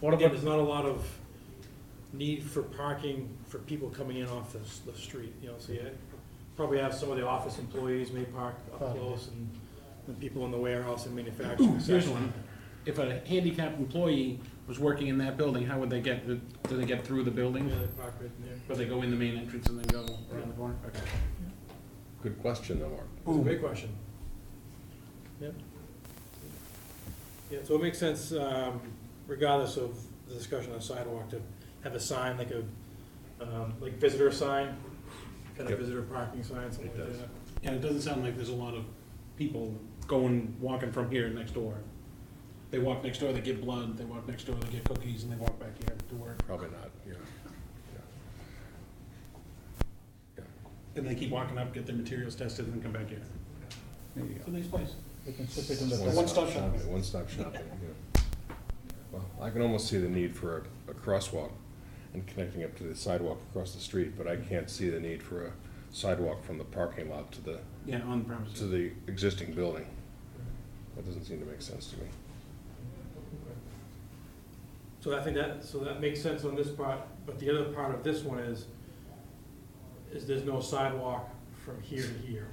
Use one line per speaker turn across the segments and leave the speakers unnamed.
What
Yeah,
about,
there's not a lot of need for parking for people coming in off the, s- the street, you know, so you probably have some of the office employees may park up
Probably.
close and the people in the warehouse and manufacturing
Here's
section.
one. If a handicapped employee was working in that building, how would they get, do they get through the
Yeah,
building?
they park right in there.
Or they go in the main entrance and then go around the corner? Okay.
Good question, though, Mark.
It's a great question. Yep. Yeah, so it makes sense, um, regardless of the discussion on sidewalk, to have a sign like a, um, like visitor sign, kind of
Yep.
visitor parking sign, something
It
like
does.
that.
And it doesn't sound like there's a lot of people going, walking from here next door. They walk next door, they get blood, they walk next door, they get cookies, and they walk back here to work.
Probably not, yeah.
And they keep walking up, get their materials tested, and then come back here.
there you go.
It's a nice place.
They can slip it in the
One
back.
one-stop shopping.
One-stop shopping, yeah. Well, I can almost see the need for a, a crosswalk and connecting up to the sidewalk across the street, but I can't see the need for a sidewalk from the parking lot to the,
Yeah, on the
to
premises.
the existing building. That doesn't seem to make sense to me.
So I think that, so that makes sense on this part, but the other part of this one is, is there's no sidewalk from here to here.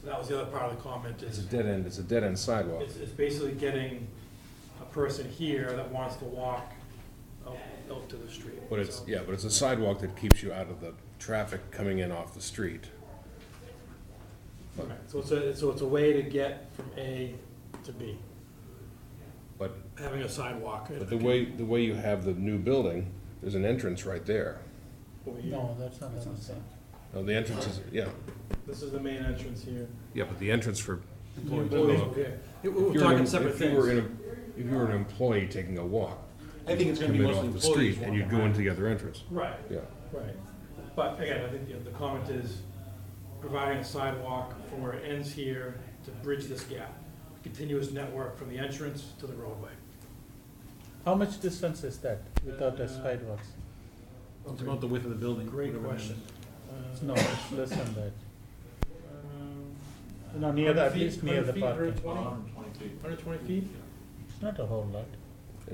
So that was the other part of the comment,
It's
is
a dead end, it's a dead-end sidewalk.
It's, it's basically getting a person here that wants to walk out, out to the street.
But it's,
So-
yeah, but it's a sidewalk that keeps you out of the traffic coming in off the street.
Right, So it's a, so it's a way to get from A to B,
But
having a sidewalk.
But the way, the way you have the new building, there's an entrance right there.
over here.
No, that's not what I'm saying.
Now, Oh, the entrance is, yeah,
This is the main entrance here.
yeah, but the entrance for.
Employees
Well,
over here. It-
if
We're
you're an-
talking separate
if you were
things.
in a- If you were an employee taking a walk,
I think it's gonna be
come in
mostly
off the
employees
street,
walking
and you'd go
around.
into the other entrance,
Right,
yeah.
right. But again, I think you know, the comment is providing a sidewalk from where it ends here to bridge this gap. Continuous network from the entrance to the roadway.
How much distance is that without the
Uh,
sidewalks?
It's about the width of the building.
Great
whatever it
question.
is.
Uh,
No, it's less than that.
Um,
No, near the, at
100
least
feet,
near the
100 feet,
parking.
120? 120 feet?
It's not a whole lot.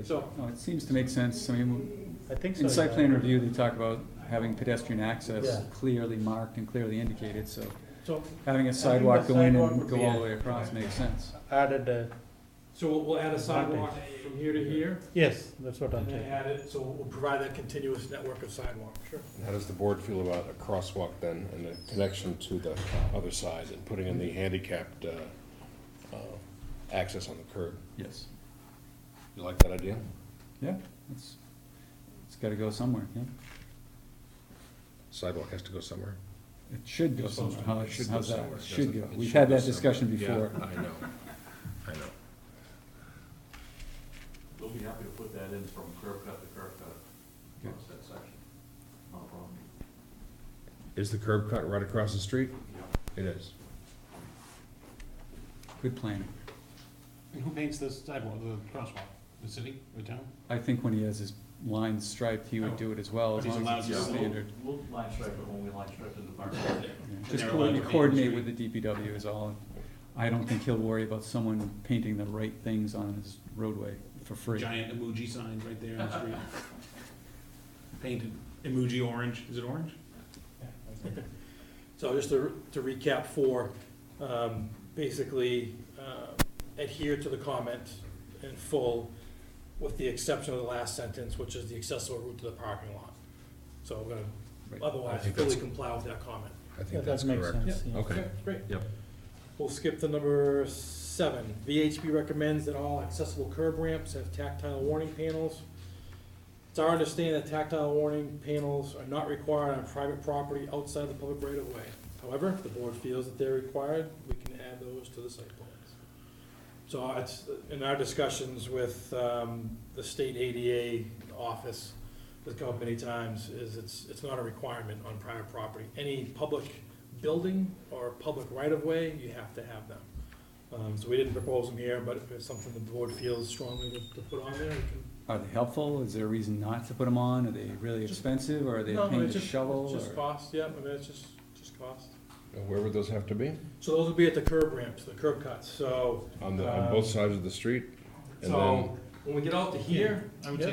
So,
No, it seems to make sense. I mean,
I think so.
in site
yeah.
plan review, they talk about having pedestrian access
Yeah.
clearly marked and clearly indicated, so
so,
having a
the
sidewalk go in
sidewalk would
and
be
go all
a-
the way across makes sense.
Added, uh,
so we'll- we'll add a sidewalk from here to here,
yes, that's what I'm
and then
saying.
add it, so we'll provide that continuous network of sidewalk. Sure.
And How does the board feel about a crosswalk then, and a connection to the other side, and putting in the handicapped, uh, uh, access on the curb?
Yes.
You like that idea?
Yeah, it's, it's gotta go somewhere, yeah.
Sidewalk has to go somewhere.
It should go
Goes
somewhere.
somewhere.
How's,
Should go
how's that?
somewhere.
Should go.
Doesn't- it
We've
should
had
go
that discussion
somewhere.
before.
Yeah, I know, I know.
We'll be happy to put that in from curb cut to curb cut, across that section, no problem.
Is the curb cut right across the street? It is.
Good planning.
And who paints the sidewalk, the crosswalk? The city, the town?
I think when he has his lines striped, he would do it as well, as
He's
long as
allowed
it's
to.
standard.
We'll we'll line stripe it when we line stripe the department.
Yeah,
And
Just
they're allowed to paint
coordinate
the
coordinate
street.
with the DPW is all. I don't think he'll worry about someone painting the right things on his roadway for free.
Giant emoji sign right there on the street. Painted emoji orange, is it orange?
So just to to recap four, um, basically uh, adhere to the comment in full with the exception of the last sentence, which is the accessible route to the parking lot. So we're gonna
Right. I
otherwise
think
fully
that's-
comply with that comment.
I
Yeah,
think that's
That makes
correct.
sense, yeah.
Okay.
Great.
Yep.
We'll skip to number seven. VHB recommends that all accessible curb ramps have tactile warning panels. It's our understanding that tactile warning panels are not required on private property outside the public right of way. However, if the board feels that they're required, we can add those to the site plans. So it's, in our discussions with, um, the state ADA office, that's come up many times, is it's, it's not a requirement on private property. Any public building or public right-of-way, you have to have them. Um, so we didn't propose them here, but if it's something the board feels strongly to, to put on there, we can.
Are they helpful? Is there a reason not to put them on? Are they really
Just-
expensive or are they a
No,
pain
it's
to
just- it's
shovel?
Just
or-
cost, yeah, I mean, it's just, just cost.
Now, Where would those have to be?
So those would be at the curb ramps, the curb cuts, so,
On the, on both sides of the street? And
so,
then
when we get out to here,
Yeah.